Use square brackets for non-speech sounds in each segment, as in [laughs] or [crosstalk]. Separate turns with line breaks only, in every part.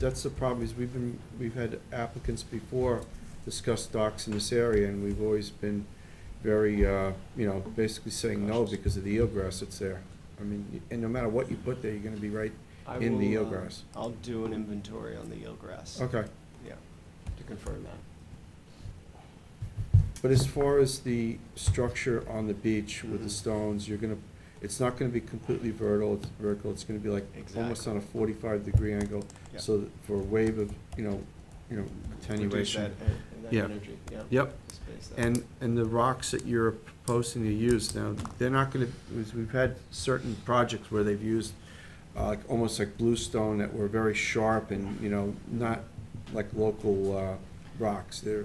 that's the problem, is we've been, we've had applicants before discuss docks in this area, and we've always been very, uh, you know, basically saying no because of the eelgrass that's there. I mean, and no matter what you put there, you're gonna be right
I
in the
will, uh,
eelgrass.
I'll do an inventory on the eelgrass.
Okay,
Yeah, to confirm that.
but as far as the structure on the beach with the
Mhm.
stones, you're gonna, it's not gonna be completely vertical, it's vertical, it's gonna be like almost
Exactly.
on a forty-five degree angle,
Yeah.
so that for a wave of, you know, you know,
Reduce
attenuation.
that en- that
Yeah.
energy, yeah.
Yep.
to space that.
And, and the rocks that you're proposing to use now, they're not gonna, because we've had certain projects where they've used, uh, like, almost like bluestone that were very sharp and, you know, not like local, uh, rocks. They're,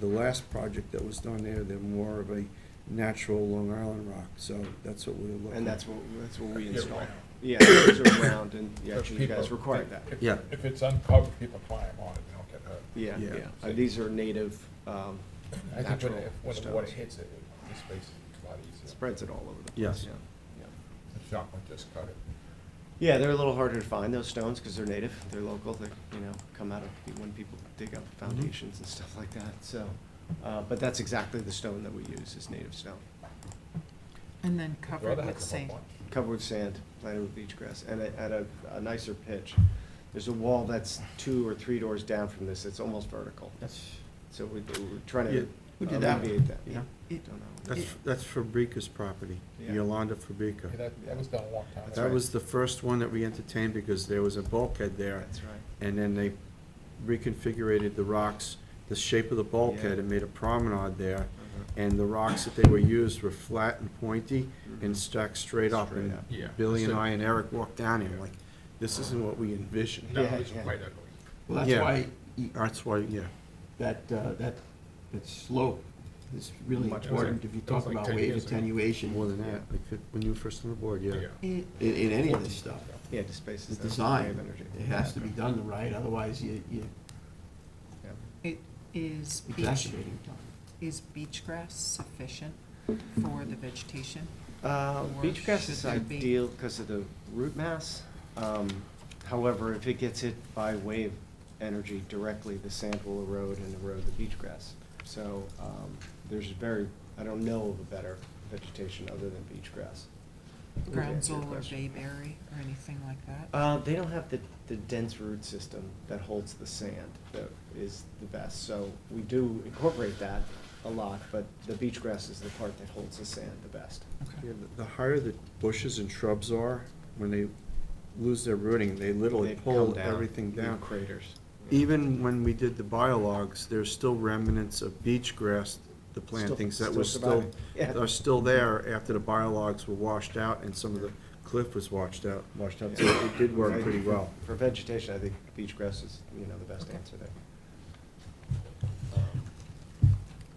the last project that was done there, they're more of a natural Long Island rock, so that's what we're looking.
And that's what, that's what we
Yeah,
install.
round.
Yeah, those are round, and, yeah,
Because
actually, you guys
people-
required that.
if-
Yeah.
If it's uncovered, people climb on it, they don't get hurt.
Yeah,
Yeah.
yeah. Uh, These are native, um,
I think when,
natural
if, when the water
stones.
hits it, it- the space is a lot easier.
Spreads it all over the place.
Yes.
yeah, yeah.
The shop would just cut it.
Yeah, they're a little harder to find, those stones, because they're native, they're local, they, you know, come out of, when people dig up
Mm-hmm.
foundations and stuff like that, so. Uh, but that's exactly the stone that we use, is native stone.
And then
The
cover
other
it
had
with
come up
sand.
once.
covered with sand, planted with beach grass, and at at a, a nicer pitch. There's a wall that's two or three doors down from this, it's almost vertical.
That's,
So we, we're trying
Yeah,
to
we
did that one,
alleviate that.
yeah.
It-
Don't know.
that's, that's Fabrica's property,
Yeah.
Yolanda
Yeah,
Fabrica.
that, that was done a long time
That's
ago.
That
right.
was the first one that we entertained because there was a bulkhead there.
That's right.
and then they reconfigured the rocks, the shape of the bulkhead,
Yeah.
and made a promenade there.
Uh-huh.
And the rocks that they were used were flat and pointy and
Mhm.
stacked straight up.
Straight
And
up.
Yeah.
Billy and
So-
I and Eric walked down here,
Yeah.
like, this isn't what we envisioned.
No,
Yeah,
it was
yeah.
quite ugly.
Well,
Yeah.
that's why y-
That's why, yeah,
that, uh, that, that slope is really
Much
important
better.
if you
That was
talk
like
about
10
wave
years ago.
more
attenuation
than that, like, fif- when you were first on the board, yeah.
Yeah.
It-
in, in any of this stuff.
Yeah, to space
The
this.
design, it has to be done the right, otherwise you, you
It is beach,
exacerbating.
is beach grass sufficient for the vegetation?
Uh,
Or
beach grass is
should there be-
ideal because of the root mass. Um, however, if it gets hit by wave energy directly, the sand will erode and erode the beach grass. So, um, there's very, I don't know of a better vegetation other than beach grass. Would answer your
Groundsel or
question.
bayberry or anything like that?
Uh, they don't have the, the dense root system that holds the sand that is the best. So we do incorporate that a lot, but the beach grass is the part that holds the sand the best.
Okay.
Yeah, the- The higher the bushes and shrubs are, when they lose their rooting, they literally
They come
pull
down,
everything
leave
down.
Craters.
Even when we did the biologs, there's still remnants of beach grass, the
Still-
plantings that
still
were still,
surviving. Yeah.
are still there after the biologs were washed out and some of the cliff was washed out, washed out, so it did work pretty well.
For vegetation, I think beach grass is, you know, the best answer there.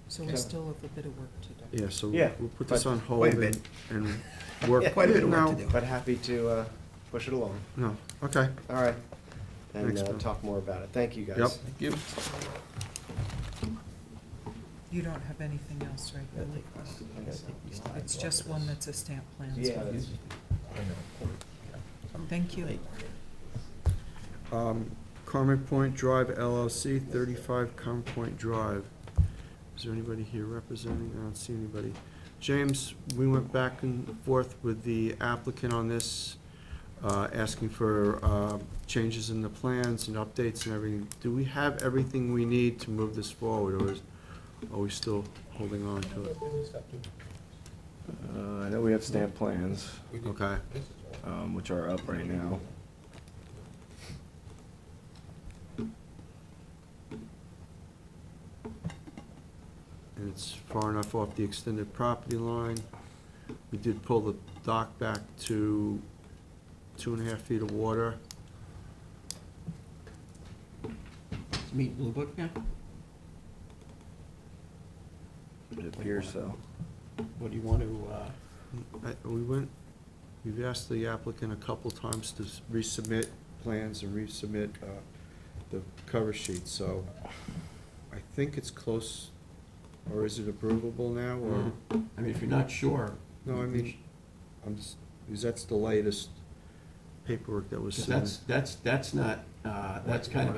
So we still have a bit of work to do.
Yeah, so
Yeah,
we'll put this
but-
on hold
Quite a
and, and
Yeah. [laughs]
work.
Quite a bit
of work to
No,
do.
But happy to uh, push it along.
No, okay.
All right. And
Thanks,
uh,
Bill.
talk more about it. Thank you, guys.
Yep.
You don't have anything else, right, Billy? It's just one that's a stamp plan. so-
Yeah, that's-
I know.
Thank you.
Um, Carmen Point Drive LLC, thirty-five Carmen Point Drive. Is there anybody here representing? I don't see anybody. James, we went back and forth with the applicant on this, uh, asking for, uh, changes in the plans and updates and everything. Do we have everything we need to move this forward, or is, are we still holding on to it?
Uh, I know we have stamp plans,
We did-
Okay.
this is all-
um, which are up right now.
and it's far enough off the extended property line. We did pull the dock back to two and a half feet of water.
Meet Blue Book now?
It appears so.
What do you want to, uh,
I- We went, we've asked the applicant a couple times to s- resubmit plans and resubmit uh, the cover sheet, so I think it's close, or is it approvable now,
Mm-hmm.
or?
I mean, if you're not sure.
No, I
you
mean,
should-
I'm, s- because that's the latest paperwork that was
'cause
submitted.
That's, that's, that's not, uh, that's kind of